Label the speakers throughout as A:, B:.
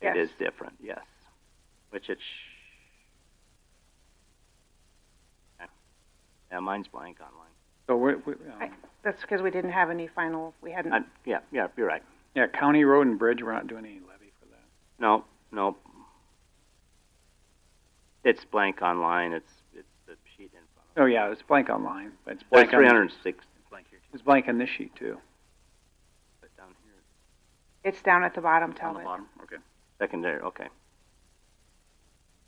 A: Yes.
B: It is different, yes. Which it's. Yeah, mine's blank online.
C: So we're, we, um,
A: Right. That's because we didn't have any final, we hadn't,
B: I, yeah, yeah, you're right.
C: yeah, county road and bridge, we're not doing any levy for that.
B: No, no. It's blank online. It's it's the sheet in front.
C: Oh, yeah, it's blank online, but it's
B: Of Like
C: blank
B: three
C: on,
B: hundred six. Blank here too.
C: it's blank on this sheet too.
B: But down here it's
A: it's down at the bottom,
B: on
A: tell
B: the
A: it.
B: bottom. Okay. Secondary. Okay.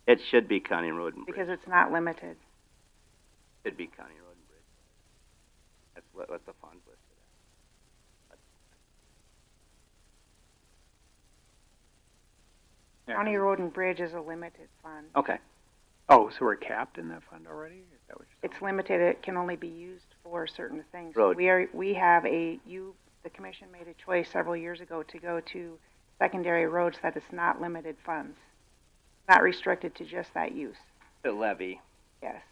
B: It should be County Road and Bridge.
A: Because it's not limited.
B: it should be County Road and Bridge. That's what, what the fund listed. as.
C: Yeah.
A: County road and bridge is a limited fund.
C: Okay. Oh, so we're capped in that fund already? Is that what you're
A: It's
C: saying?
A: limited, it can only be used for certain things.
B: Road.
A: We are, we have a, you, the commission made a choice several years ago to go to secondary roads that is not limited funds. Not restricted to just that use,
D: The levy.
A: yes.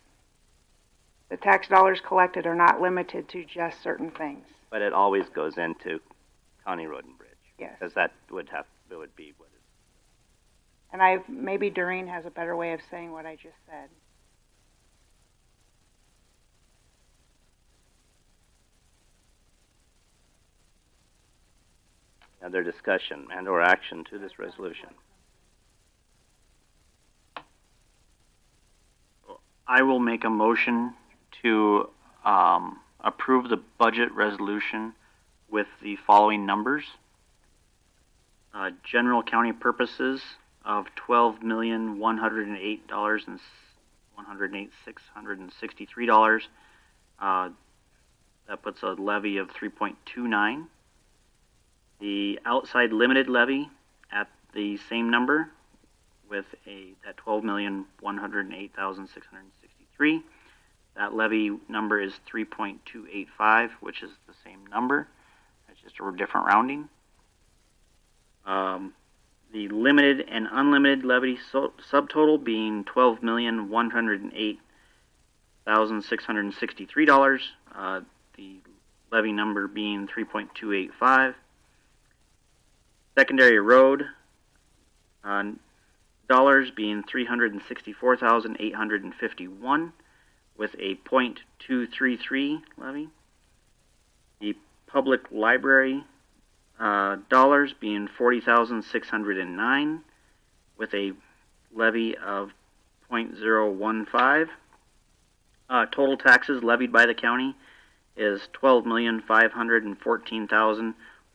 A: The tax dollars collected are not limited to just certain things,
B: But it always goes into County Road and Bridge
A: yes.
B: because that would have that would be what is
A: And I, maybe Doreen has a better way of saying what I just said.
B: another discussion and or action to this resolution.
E: I will make a motion to um, approve the budget resolution with the following numbers. Uh, general county purposes of twelve million one hundred and eight dollars and one hundred eight six hundred and sixty three dollars. Uh, that puts a levy of three point two nine. The outside limited levy at the same number, with a that twelve million one hundred and eight thousand six hundred and sixty three. That levy number is three point two eight five, which is the same number. It's just a different rounding. Um, the limited and unlimited levy so- subtotal being twelve million one hundred and eight thousand six hundred and sixty three dollars. Uh, the levy number being three point two eight five. Secondary road. Uh, dollars being three hundred and sixty-four thousand eight hundred and fifty-one, with a point two three three levy. The public library uh, dollars being forty thousand six hundred and nine, with a levy of point zero one five. Uh, total taxes levied by the county is twelve million five hundred and fourteen thousand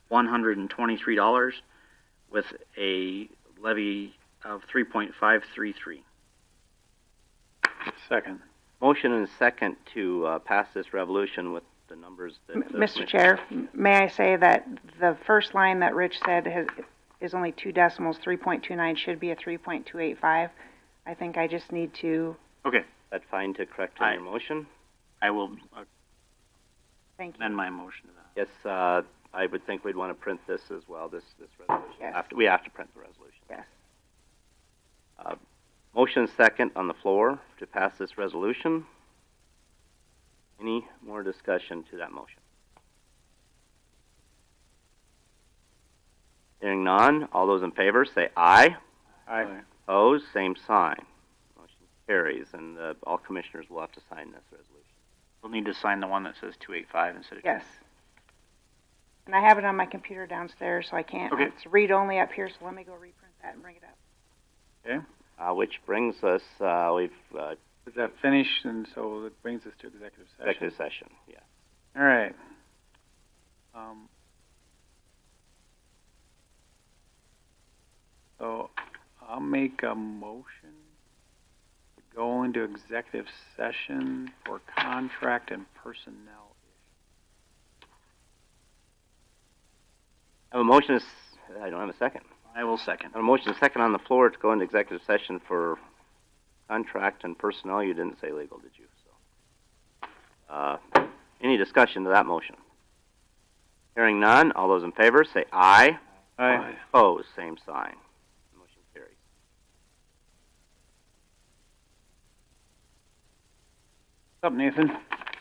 E: one hundred and twenty-three dollars, with a levy of 3.533.
C: Second.
B: Motion and second to uh, pass this revolution with the numbers that.
A: M-
B: the
A: Mr.
B: commission-
A: Chair, m- may I say that the first line that Rich said has, is only two decimals, three point two nine should be a three point two eight five. I think I just need to,
B: That fine to correct on your
E: Aye.
B: motion?
E: I will
A: thank you,
E: amend my motion to that.
B: Yes, uh, I would think we'd want to print this as well, this, this resolution.
A: Yes.
B: After- We have to print the resolution. Uh,
A: yes.
B: Motion and second on the floor to pass this resolution. Any more discussion to that motion? Hearing none, all those in favor say aye.
C: Aye.
B: Opposed, same sign. Motion carries, and uh, all commissioners will have to sign this resolution.
E: We'll need to sign the one that says 285 instead of
A: Yes. And I have it on my computer downstairs, so I can't,
E: Okay.
A: it's read-only up here, so let me go reprint that and bring it up.
B: Uh, which brings us, uh, we've, uh,
C: Is that finished? And so that brings us to executive session.
B: executive session, yeah.
C: All right. Um, so I'll make a motion to go into executive session for contract and personnel.
B: I have a motion, is- I don't have a second.
E: I will second.
B: I have a motion, and a second on the floor to go into executive session for contract and personnel, you didn't say legal, did you? So, Uh, any discussion to that motion? Hearing none, all those in favor say aye.
C: Aye.
B: Opposed, same sign. Motion carries.
C: What's up, Nathan?